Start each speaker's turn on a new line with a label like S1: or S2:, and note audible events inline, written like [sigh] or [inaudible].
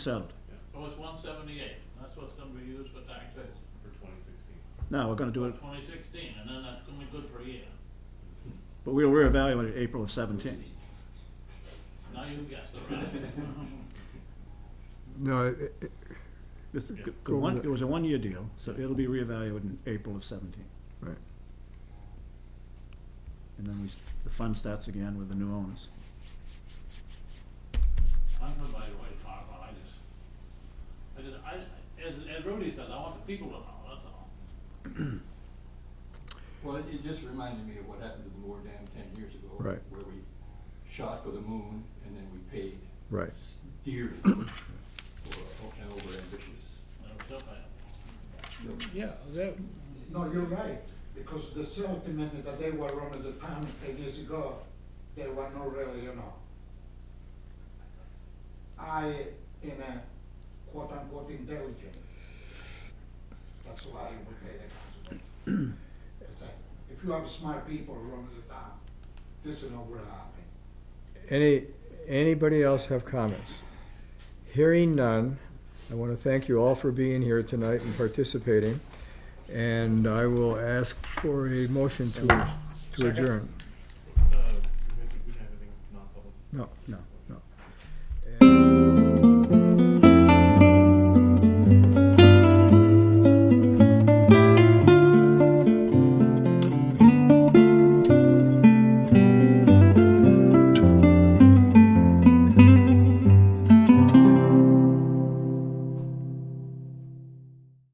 S1: sound.
S2: So Oh, it's one seventy-eight, that's what's gonna be used for taxes
S3: for twenty sixteen.
S1: No, we're gonna do
S2: for
S1: it,
S2: twenty sixteen, and then that's gonna be good for a year.
S1: but we'll reevaluate it April of seventeen.
S2: Now you guess
S3: [laughs]
S2: the rest.
S4: No, it- it-
S1: This,
S3: Yeah.
S1: it was one, it was a one-year deal, so it'll be reevaluated in April of seventeen.
S4: right.
S1: And then we, s- the fund starts again with the new owners.
S2: I'm from by the way, far, but I just, I just, I, as, as Rudy says, I want the people to know, that's all.
S5: Well, it- it just reminded me of what happened to the Moore Dam ten years ago.
S4: Right.
S5: Where we shot for the moon and then we paid.
S4: Right.
S5: s- Dearly for an overambitious.
S2: That's so bad.
S6: Yeah, that,
S7: No, you're right, because the settlement that they were running the town ten years ago, they were not really, you know. I, in a quote unquote intelligent, that's why you would pay the consequences. It's like, If you have smart people running the town, this is not gonna happen.
S4: Any, anybody else have comments? Hearing none, I want to thank you all for being here tonight and participating. And I will ask for a motion to, to adjourn.
S3: Uh, we have to- we don't have anything non-public.
S4: No,
S1: No.